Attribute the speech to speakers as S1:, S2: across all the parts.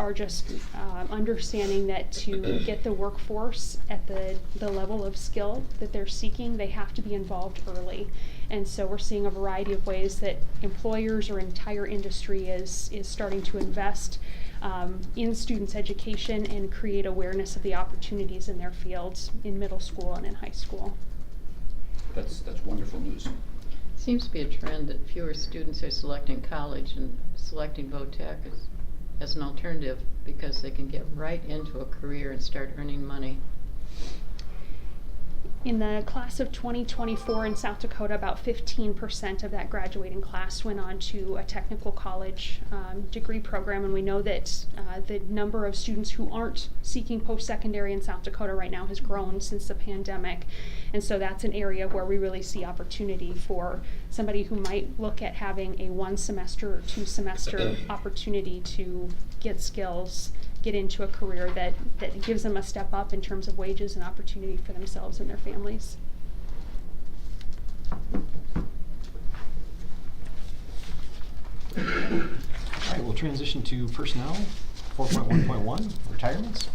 S1: are just um, understanding that to get the workforce at the, the level of skill that they're seeking, they have to be involved early. And so we're seeing a variety of ways that employers or entire industry is, is starting to invest um, in students' education and create awareness of the opportunities in their fields in middle school and in high school.
S2: That's, that's wonderful news.
S3: Seems to be a trend that fewer students are selecting college and selecting VOTEC as, as an alternative because they can get right into a career and start earning money.
S1: In the class of 2024 in South Dakota, about 15% of that graduating class went on to a technical college um, degree program. And we know that uh, the number of students who aren't seeking post secondary in South Dakota right now has grown since the pandemic. And so that's an area where we really see opportunity for somebody who might look at having a one semester or two semester opportunity to get skills get into a career that, that gives them a step up in terms of wages and opportunity for themselves and their families.
S4: All right, we'll transition to personnel, four point one point one, retirements.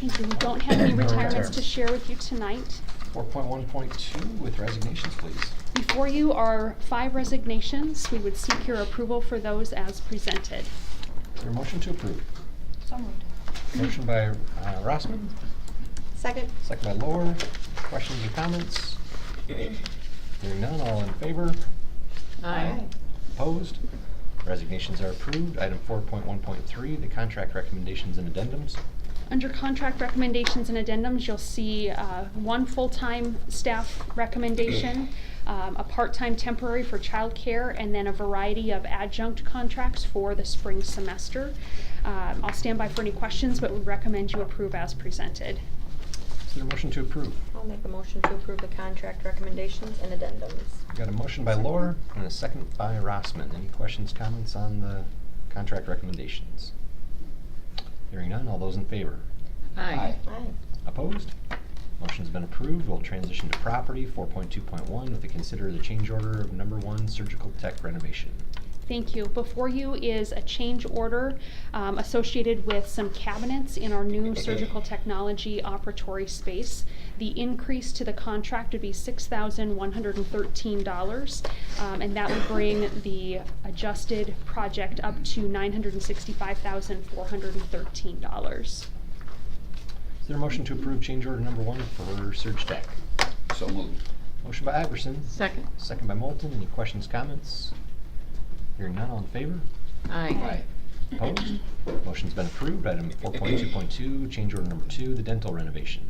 S1: Thank you. We don't have any
S4: No
S1: retirements to
S4: retirements.
S1: share with you tonight.
S4: Four point one point two with resignations, please.
S1: Before you are five resignations. We would seek your approval for those as presented.
S4: Is there a motion to approve?
S5: So moved.
S4: Motion by uh, Rossman,
S5: Second?
S4: second by Lohr. Questions or comments? Hearing none, all in favor?
S3: Aye.
S4: Opposed? Resignations are approved. Item four point one point three, the contract recommendations and addendums.
S1: Under contract recommendations and addendums, you'll see uh, one full-time staff recommendation, um, a part-time temporary for childcare, and then a variety of adjunct contracts for the spring semester. Um, I'll stand by for any questions, but would recommend you approve as presented.
S4: Is there a motion to approve?
S5: I'll make a motion to approve the contract recommendations and addendums.
S4: Got a motion by Lohr and a second by Rossman. Any questions, comments on the contract recommendations? Hearing none, all those in favor?
S3: Aye.
S5: Aye.
S4: Opposed? Motion's been approved. We'll transition to property, four point two point one, with a consider the change order of number one surgical tech renovation.
S1: Thank you. Before you is a change order um, associated with some cabinets in our new surgical technology operatory space. The increase to the contract would be $6,113, um, and that would bring the adjusted project up to $965,413.
S4: Is there a motion to approve change order number one for surge tech?
S2: So moved.
S4: Motion by Iverson,
S3: Second.
S4: second by Moulton. Any questions, comments? Hearing none, all in favor?
S3: Aye.
S4: Opposed? Motion's been approved. Item four point two point two, change order number two, the dental renovation.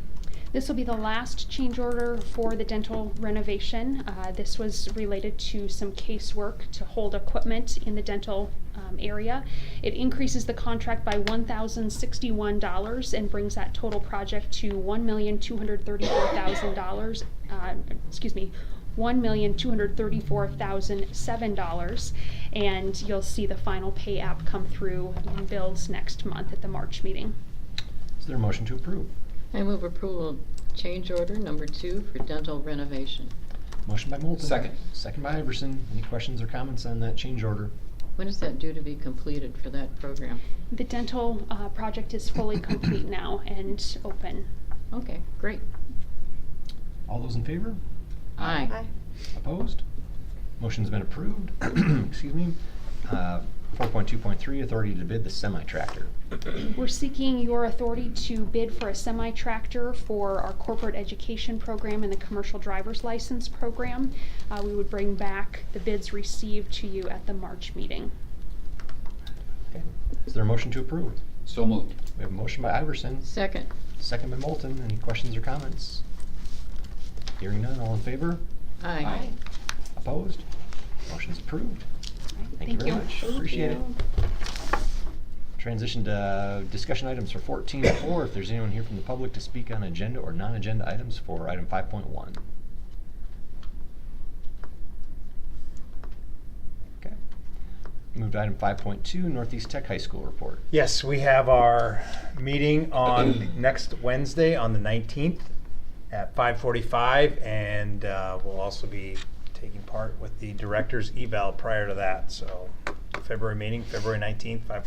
S1: This will be the last change order for the dental renovation. Uh, This was related to some casework to hold equipment in the dental um, area. It increases the contract by $1,061 and brings that total project to $1,234,000, uh, excuse me, $1,234,007. And you'll see the final pay app come through in bills next month at the March meeting.
S4: Is there a motion to approve?
S3: I move approval of change order number two for dental renovation.
S4: Motion by Moulton.
S2: Second.
S4: Second by Iverson. Any questions or comments on that change order?
S3: When is that due to be completed for that program?
S1: The dental uh, project is fully complete now and open.
S3: Okay, great.
S4: All those in favor?
S3: Aye.
S5: Aye.
S4: Opposed? Motion's been approved. Excuse me. Uh, 4.2.3, authority to bid the semi-tractor.
S1: We're seeking your authority to bid for a semi-tractor for our corporate education program and the commercial driver's license program. Uh, We would bring back the bids received to you at the March meeting.
S4: Okay. Is there a motion to approve?
S2: So moved.
S4: We have a motion by Iverson,
S3: Second.
S4: second by Moulton. Any questions or comments? Hearing none, all in favor?
S3: Aye.
S2: Aye.
S4: Opposed? Motion's approved. Thank you very much. Appreciate it. Transition to uh, discussion items for 14.4. If there's anyone here from the public to speak on agenda or non-agenda items for item 5.1. Okay. Move to item 5.2, Northeast Tech High School report.
S6: Yes, we have our meeting on next Wednesday, on the 19th, at 5:45, and uh, we'll also be taking part with the director's eval prior to that, so February meeting, February 19th, 5:45.